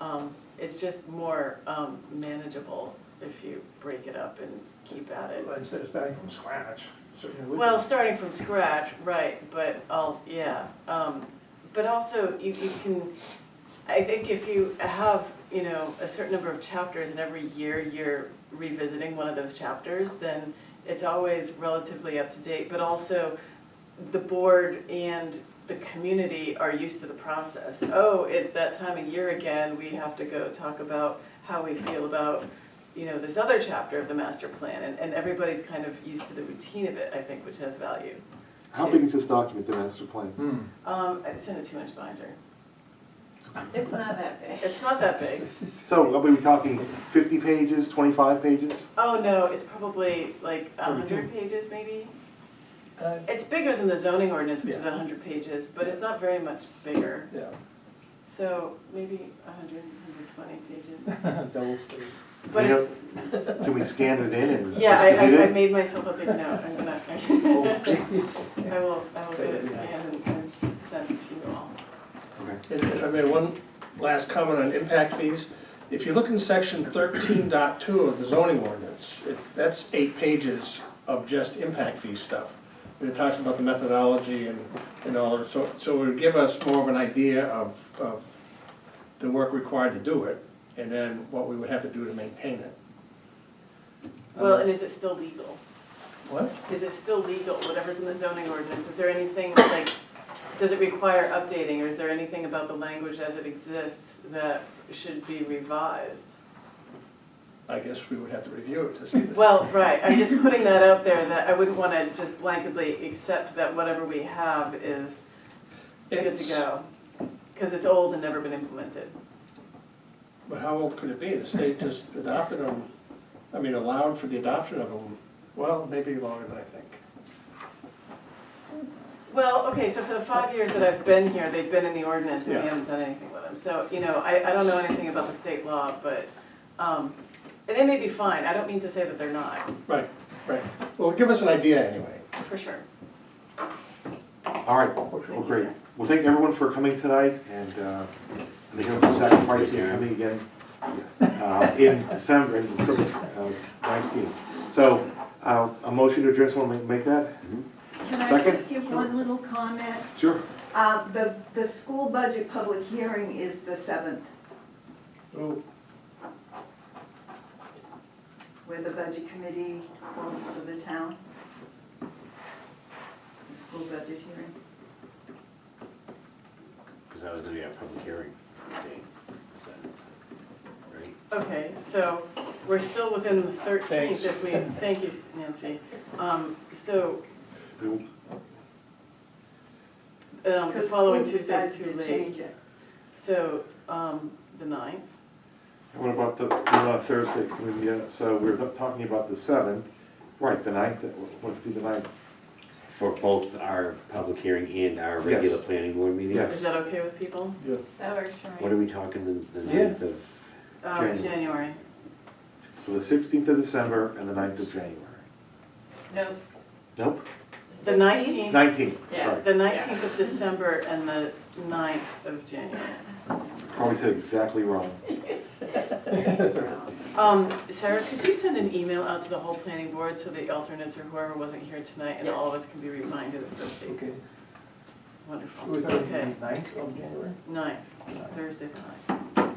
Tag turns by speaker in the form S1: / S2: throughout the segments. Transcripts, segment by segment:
S1: Um, It's just more um, manageable if you break it up and keep at it.
S2: Well, Instead of starting from scratch, certainly would.
S1: Well, starting from scratch, right, but I'll, yeah, um, but also you, you can, I think if you have, you know, a certain number of chapters and every year you're revisiting one of those chapters, then it's always relatively up to date, but also the board and the community are used to the process. Oh, it's that time of year again, we have to go talk about how we feel about you know, this other chapter of the master plan, and, and everybody's kind of used to the routine of it, I think, which has value.
S3: How
S1: too.
S3: big is this document, the master plan?
S2: Hmm.
S1: Um, it's in a two-inch binder.
S4: It's not that big.
S1: It's not that big.
S3: So are we talking fifty pages, twenty-five pages?
S1: Oh, no, it's probably like a hundred pages, maybe? It's bigger than the zoning ordinance, which is
S2: Yeah.
S1: a hundred pages, but it's not very much bigger.
S2: Yeah,
S1: So maybe a hundred, hundred twenty pages.
S2: double space.
S1: But
S3: You know,
S1: it's,
S3: Can we scan it in and?
S1: yeah,
S3: just
S1: I,
S3: delete
S1: I, I
S3: it?
S1: made myself a big note, I'm gonna, I will, I will do it, and, and send it to you all.
S3: Okay.
S5: If if I made one last comment on impact fees, if you look in section 13.2 of the zoning ordinance, it- that's eight pages of just impact fee stuff. And It talks about the methodology and, and all, that. so, so it would give us more of an idea of, of the work required to do it, and then what we would have to do to maintain it. Um,
S1: Well, and is it still legal?
S5: What?
S1: Is it still legal, whatever's in the zoning ordinance, is there anything, like, does it require updating, or is there anything about the language as it exists that should be revised?
S5: I guess we would have to review it to see. that.
S1: Well, right, I'm just putting that out there, that I wouldn't wanna just blanketly accept that whatever we have is good to
S5: It's-
S1: go, cause it's old and never been implemented.
S5: But how old could it be? The state just adopted them, I mean, allowed for the adoption of them, well, maybe longer than I think.
S1: Well, okay, so for the five years that I've been here, they've been in the ordinance and we
S5: Yeah.
S1: haven't done anything with them. So, you know, I, I don't know anything about the state law, but, um, and they may be fine, I don't mean to say that they're not,
S5: Right, right. Well, give us an idea anyway.
S1: for sure.
S3: All right, well, great. Well, thank everyone for coming tonight and, uh, and thank everyone for sacrificing and coming again. Uh, in December, in December nineteenth. So, uh, a motion to adjourn, someone make- make that?
S4: Can I
S3: Second?
S4: just give one little comment?
S3: Sure.
S4: Uh, The, the school budget public hearing is the 7th,
S2: Oh,
S4: where the budget committee calls for the town. The school budget hearing.
S6: Because that was gonna be our public hearing date, is that right?
S1: Okay, so we're still within the thirteenth
S5: Thanks.
S1: if we, thank you, Nancy. Um, so,
S3: We-
S1: um, the
S4: Because
S1: following
S4: school
S1: Tuesday's
S4: decided
S1: too
S4: to
S1: late.
S4: change it.
S1: So, um, the ninth?
S3: What about the, what about Thursday, Can we, uh, so we're talking about the seventh, right, the ninth, uh, what if we do the ninth?
S6: For both our public hearing and our regular
S3: Yes.
S6: planning board meeting?
S3: Yes.
S1: Is that okay with people?
S7: That works for
S6: What
S7: me.
S6: are we talking the, the
S5: Yeah.
S6: ninth of?
S1: Um,
S3: January.
S1: January.
S3: So the sixteenth of December and the 9th of January.
S7: No,
S3: Nope,
S1: The
S7: 16?
S1: nineteenth,
S3: nineteenth,
S7: Yeah.
S3: sorry,
S1: the nineteenth of December and the 9th of January.
S3: probably said exactly wrong.
S1: Um, Sarah, could you send an email out to the whole planning board so the alternates or whoever wasn't here tonight and all of us can be reminded of those dates?
S2: okay. Who
S1: Wonderful,
S2: was that,
S1: okay,
S2: the ninth of January?
S1: ninth, Thursday the ninth.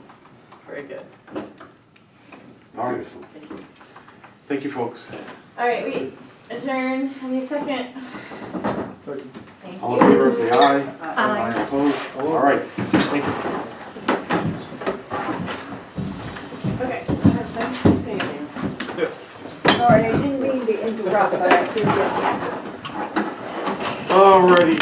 S1: Very good.
S3: All right,
S6: Beautiful.
S3: thank you, folks.
S7: All right, we adjourn any second.
S2: Thirty.
S7: Thank
S3: All in favor,
S7: you.
S3: say aye.
S1: Uh,
S3: Aye opposed, all right, thank you.
S7: Okay.
S1: Thank you.
S4: Sorry, I didn't mean to interrupt, but I did get
S3: All righty.